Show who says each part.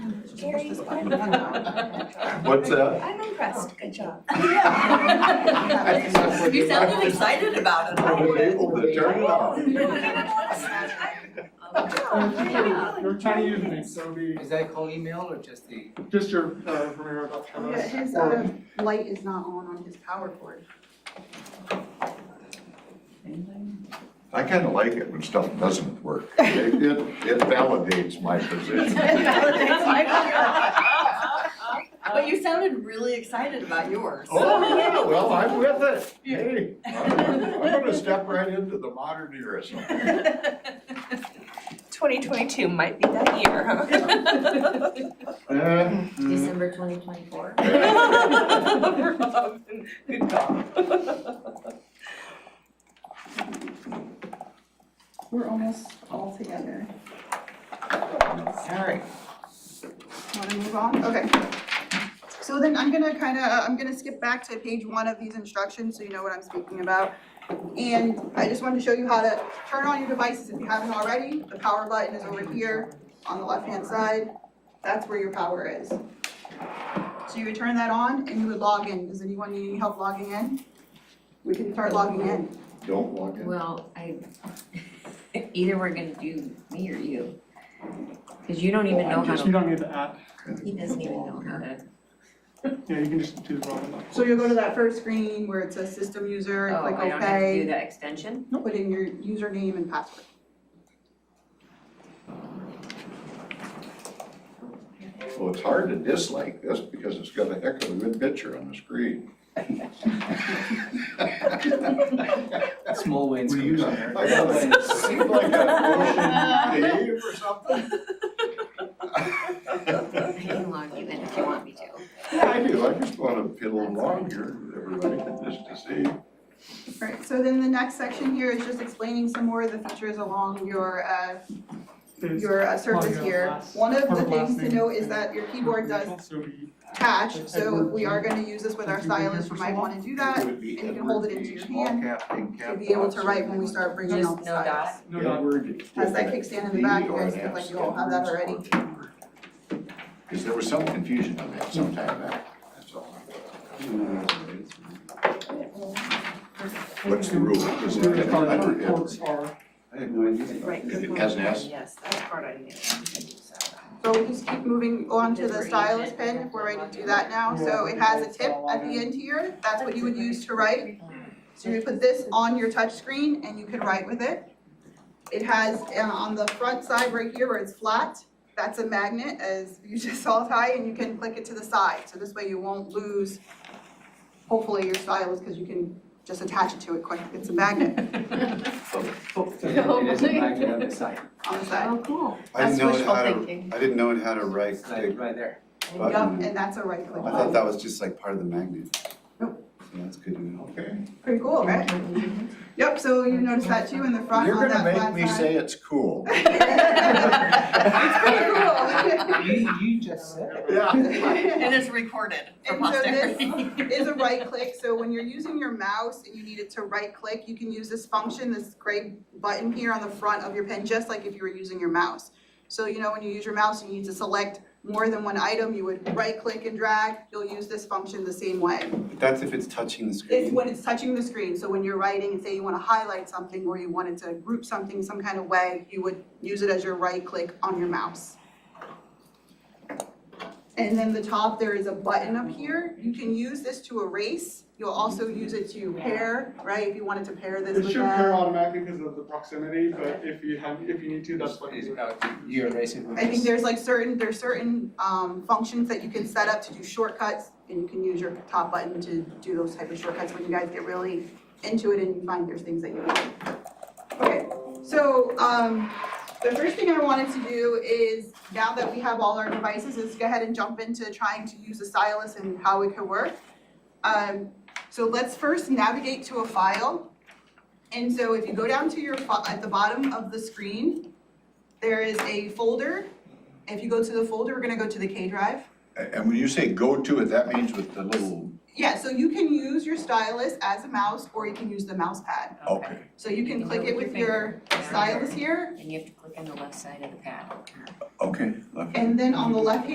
Speaker 1: Gary,
Speaker 2: What's that?
Speaker 1: I'm impressed, good job.
Speaker 3: You sounded excited about it.
Speaker 2: I was able to turn it off.
Speaker 1: Yeah.
Speaker 4: Your Chinese username, so the,
Speaker 5: Is that called email or just the?
Speaker 4: just your, uh, Romero.com.
Speaker 6: Yeah, his, uh, light is not on on his power cord.
Speaker 2: I kind of like it when stuff doesn't work. It, it it validates my position.
Speaker 3: But you sounded really excited about yours.
Speaker 2: Oh, yeah, well, I'm with it. Hey, I'm gonna step right into the modern era somewhere.
Speaker 7: 2022 might be that year, huh?
Speaker 2: Uh,
Speaker 8: December twenty twenty-four.
Speaker 7: Robin, Good job.
Speaker 6: We're almost all together.
Speaker 7: Sorry.
Speaker 6: Wanna move on? Okay. So then I'm gonna kinda, I'm gonna skip back to page one of these instructions, so you know what I'm speaking about. And I just wanted to show you how to turn on your devices if you haven't already. The power button is over here on the left-hand side. That's where your power is. So you would turn that on and you would log in. Does anyone need any help logging in? We can start logging in.
Speaker 2: Don't walk in.
Speaker 8: Well, I, either we're gonna do me or you. Cause you don't even know how
Speaker 4: Just, you
Speaker 8: to,
Speaker 4: don't need the app,
Speaker 8: he doesn't even know how to,
Speaker 4: yeah, you can just do the Robin.
Speaker 6: So you'll go to that first screen where it says system user, and
Speaker 8: oh,
Speaker 6: click
Speaker 8: I don't have to do
Speaker 6: okay,
Speaker 8: the extension?
Speaker 6: put in your username and password.
Speaker 2: Well, it's hard to dislike this because it's got a heck of a good picture on the screen.
Speaker 5: Small wins.
Speaker 2: Were you not-
Speaker 5: Commissioner.
Speaker 2: I know, it seemed like a motion cave or
Speaker 8: I
Speaker 2: something.
Speaker 8: can log you in if you want me to.
Speaker 2: Yeah, I do, I just want to piddle along here, with everybody, just to see.
Speaker 6: Right, so then the next section here is just explaining some more of the features along your, uh, your uh, surface
Speaker 4: your
Speaker 6: here.
Speaker 4: last-
Speaker 6: One of
Speaker 4: or
Speaker 6: the
Speaker 4: the last
Speaker 6: things to
Speaker 4: name.
Speaker 6: note is that your keyboard does catch, so we are gonna use this with our
Speaker 4: Have you been here
Speaker 6: stylus, you
Speaker 4: for so
Speaker 6: might
Speaker 4: long?
Speaker 6: wanna do that.
Speaker 2: It would be
Speaker 6: and you can hold it
Speaker 2: Edward
Speaker 6: into
Speaker 2: D.
Speaker 6: your
Speaker 2: Small
Speaker 6: hand
Speaker 2: cap, big cap
Speaker 6: To be able to
Speaker 2: dots.
Speaker 6: write when we start bringing out
Speaker 8: Just
Speaker 6: the
Speaker 8: no
Speaker 6: stylus.
Speaker 8: dot?
Speaker 4: No, no,
Speaker 2: Edward.
Speaker 6: Has that kickstand in the back? You guys look like you all have that already.
Speaker 2: Because there was some confusion on that sometime back, that's all. What's the rule? Is
Speaker 4: your
Speaker 2: it
Speaker 4: card
Speaker 2: under
Speaker 4: reports
Speaker 2: Edward?
Speaker 4: are,
Speaker 2: I have no idea.
Speaker 3: Right.
Speaker 2: It has an S?
Speaker 3: Yes, that part I knew.
Speaker 6: So we just keep moving on to the stylus pen, if we're ready to do that now, so it has a tip at the end here, that's what you would use to write. So you put this on your touch screen and you can write with it. It has, uh, on the front side right here where it's flat, that's a magnet, as you just saw, Ty, and you can click it to the side, so this way you won't lose, hopefully, your stylus, because you can just attach it to it quick, it's a magnet
Speaker 5: It is a magnet on the side,
Speaker 6: on the side.
Speaker 8: cool.
Speaker 9: I
Speaker 8: That's
Speaker 9: didn't know it
Speaker 8: wishful
Speaker 9: had a-
Speaker 8: thinking.
Speaker 9: I didn't know it had a right
Speaker 5: it's like
Speaker 9: click
Speaker 5: right there.
Speaker 9: button.
Speaker 6: Yep, and that's a right click.
Speaker 9: I thought that was just like part of the magnet.
Speaker 6: Nope.
Speaker 9: Yeah, that's good to know.
Speaker 2: Okay.
Speaker 6: Pretty cool, right? Yep, so you noticed that too in the front
Speaker 2: You're
Speaker 6: on
Speaker 2: gonna
Speaker 6: that
Speaker 2: make
Speaker 6: flat
Speaker 2: me
Speaker 6: side.
Speaker 2: say it's cool.
Speaker 6: It's
Speaker 5: You, you just said it.
Speaker 2: Yeah.
Speaker 6: pretty cool.
Speaker 3: And it's recorded for
Speaker 6: And so this-
Speaker 3: posterity.
Speaker 6: Is a right click, so when you're using your mouse and you needed to right click, you can use this function, this gray button here on the front of your pen, just like if you were using your mouse. So you know, when you use your mouse, and you need to select more than one item, you would right click and drag, you'll use this function the same way.
Speaker 9: But that's if it's touching the screen.
Speaker 6: It's when it's touching the screen, so when you're writing and say you wanna highlight something or you wanted to group something some kind of way, you would use it as your right click on your mouse. And then the top, there is a button up here, you can use this to erase, you'll also use it to pair, right, if you wanted to pair this
Speaker 4: it
Speaker 6: with
Speaker 4: should pair
Speaker 6: that.
Speaker 4: automatically because of the proximity, but if you have, if you need to, that's what.
Speaker 5: It's about you erase it with
Speaker 6: I think
Speaker 5: this.
Speaker 6: there's like certain, there's certain um functions that you can set up to do shortcuts and you can use your top button to do those type of shortcuts when you guys get really into it and you find there's things that you like. Okay, so um the first thing I wanted to do is now that we have all our devices is go ahead and jump into trying to use the stylus and how it could work. Um so let's first navigate to a file. And so if you go down to your fi- at the bottom of the screen, there is a folder. If you go to the folder, we're gonna go to the K drive.
Speaker 2: And when you say go to it, that means with the little,
Speaker 6: Yeah, so you can use your stylus as a mouse or you can use the mouse pad.
Speaker 2: okay.
Speaker 6: So you
Speaker 8: You
Speaker 6: can
Speaker 8: can
Speaker 6: click
Speaker 8: do
Speaker 6: it
Speaker 8: it
Speaker 6: with
Speaker 8: with
Speaker 6: your stylus here
Speaker 8: And you have to click on the left side of the pad.
Speaker 2: Okay. left.
Speaker 6: and then on the left hand